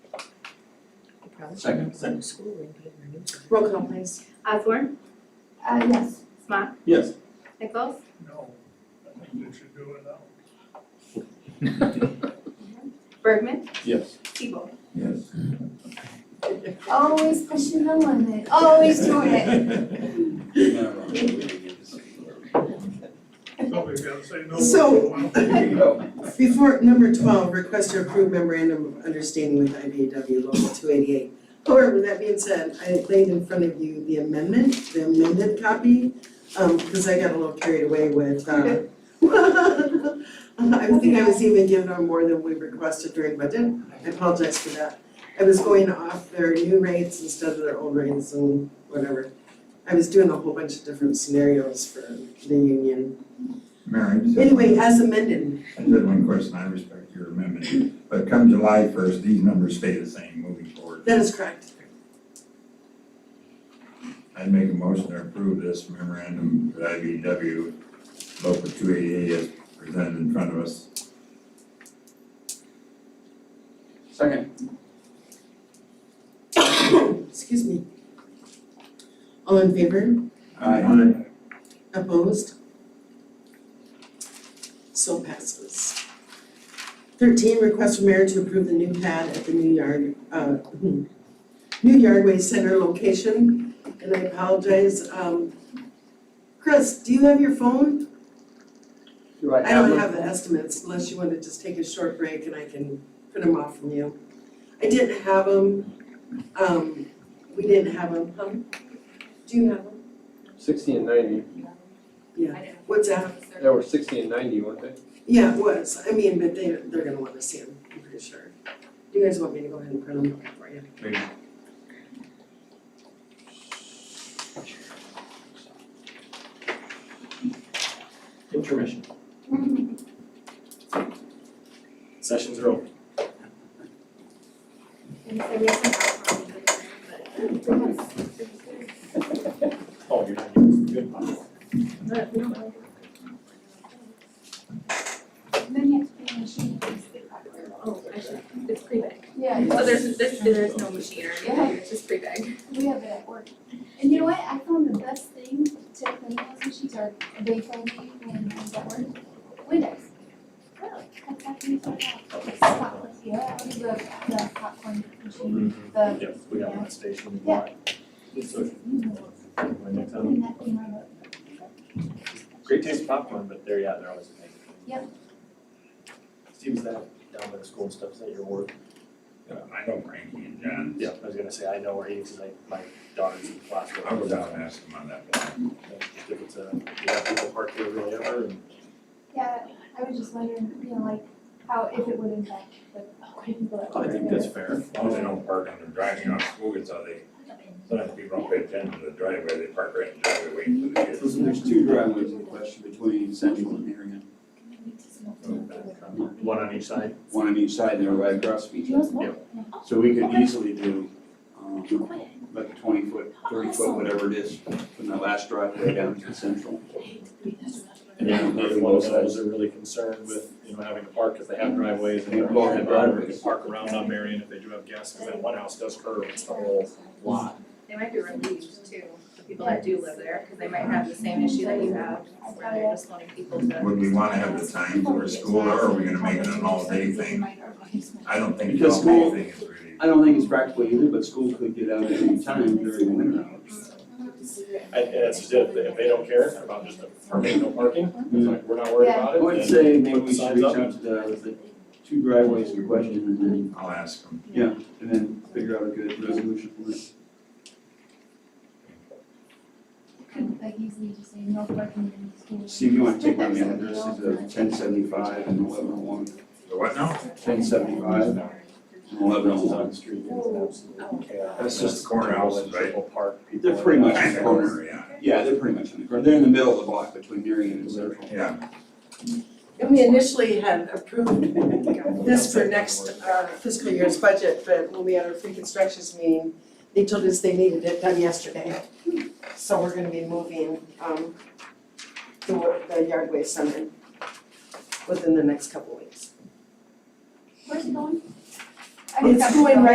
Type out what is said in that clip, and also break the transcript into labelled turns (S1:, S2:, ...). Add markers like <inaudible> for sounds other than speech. S1: probably should
S2: Second.
S1: make it in the school and put it in the newspaper.
S3: Roll call please.
S4: Osborne,
S3: Uh, yes.
S4: Smock,
S2: Yes.
S4: Nichols,
S5: No, I think you should do it now.
S4: Bergman,
S2: Yes.
S4: Siebel.
S2: Yes.
S3: Always pushing the limit, always doing it.
S5: Somebody's gotta say no.
S6: So-
S5: Well,
S6: Before, number twelve, request to approve memorandum of understanding with IBAW Local two eighty-eight. However, with that being said, I laid in front of you the amendment, the amended copy, um, because I got a little carried away with, uh, <laughs> I think I was even given on more than we requested during budget, I apologize for that. I was going off their new rates instead of their old rates and whatever. I was doing a whole bunch of different scenarios for the union.
S7: Mary, I just have-
S6: Anyway, as amended,
S7: I just had one question, I respect your amendment, but come July first, these numbers stay the same moving forward.
S6: that is correct.
S7: I'd make a motion to approve this memorandum with IBW local two eighty-eight as presented in front of us.
S2: Second.
S6: Excuse me. All in favor?
S2: Aye.
S6: Opposed? So passes. Thirteen, request from mayor to approve the new pad at the new yard, uh, hmm, new yardway center location. And I apologize, um, Chris, do you have your phone?
S2: Do I
S6: I don't have the estimates unless you wanna just take a short break and I can print them off from you. I didn't have them, um, we didn't have them, huh? Do you have them?
S8: Sixty and ninety,
S6: What's that?
S8: they were sixty and ninety, weren't they?
S6: Yeah, it was, I mean, but they, they're gonna wanna see them, I'm pretty sure. Do you guys want me to go ahead and print them out for you?
S7: Please.
S2: Intermission. Sessions are over.
S4: And so we have some popcorn, but
S2: Oh, you're not using good.
S3: <laughs> Then you have to pay machine fees, they probably will.
S4: Oh, I should, it's pre-bag.
S3: Yeah,
S4: So there's, there's, there's no machine or anything, it's just pre-bag.
S3: we have it at work. And you know what, I found the best thing to clean those machines are, they told me when I was at work, Windex. Really? That's actually so bad. Spotless, yeah, I would do the the popcorn machine, the,
S2: Yes, we got one station.
S3: Yeah.
S2: So,
S3: you know,
S2: my next time.
S3: clean that thing right up.
S2: Great taste popcorn, but they're, yeah, they're always amazing.
S3: Yep.
S2: Steve, is that down by the school and stuff, is that your work?
S7: I know Frankie and John,
S2: Yeah. I was gonna say, I know where he is, 'cause like, my daughter's in class.
S7: I'll go down and ask them on that.
S2: Just If it's a, you have people park there really ever, and
S3: Yeah, I was just wondering, you know, like, how, if it would impact the Oh, quite people that
S2: I
S3: work
S2: think
S3: there.
S2: that's fair.
S7: As long as they don't park on the driving on school, it's how they, sometimes people don't pay attention to the driveway, they park right in the driveway waiting for the kids.
S9: Listen, there's two driveways in question between Central and Marion,
S2: One on each side.
S9: one on each side, and they're right across from each other. So we could easily do, um, like a twenty foot, thirty foot, whatever it is, from the last driveway down to Central.
S2: And then the other one is those are really concerned with, you know, having to park because they have driveways and they're.
S9: They block the driveways.
S2: They can Park around on Marion if they do have guests, because that one house does curve, it's the whole lot.
S4: They might be relieved too, the people that do live there, because they might have the same issue that you have, where they're just wanting people to.
S7: Would we wanna have the time for school or are we gonna make it an all day thing? I don't think the
S9: Because
S7: all day
S9: school-
S7: thing is really.
S9: I don't think it's practical either, but school could get out at any time during the winter hours.
S2: And and that's just it, if they don't care about just a permit, no parking, it's like, we're not worried about
S9: I
S2: it.
S9: would
S2: then
S9: say maybe
S2: put the
S9: we should
S2: signs
S9: reach
S2: up.
S9: out to the, the two driveways in question and then,
S7: I'll ask them.
S9: and then figure out a good resolution for this.
S3: Like easily just say no parking in the school.
S9: See, if you wanna take down the addresses of ten seventy-five and eleven oh one,
S7: The what now?
S9: ten seventy-five and eleven oh
S2: Houses on
S9: one.
S2: the street, it's an absolute chaos.
S7: That's just the corner houses, right?
S2: People park, people.
S9: They're pretty much
S7: Kind of corner, yeah.
S9: Yeah, they're pretty much in the corner, they're in the middle of the block between Marion and Central.
S7: Yeah,
S6: And we initially had approved this for next uh, fiscal year's budget, but when we had our pre-constructions meeting, they told us they needed it done yesterday. So we're gonna be moving um the wa- the yardway center within the next couple weeks.
S3: Where's it going? I
S6: It's
S3: got-
S6: going right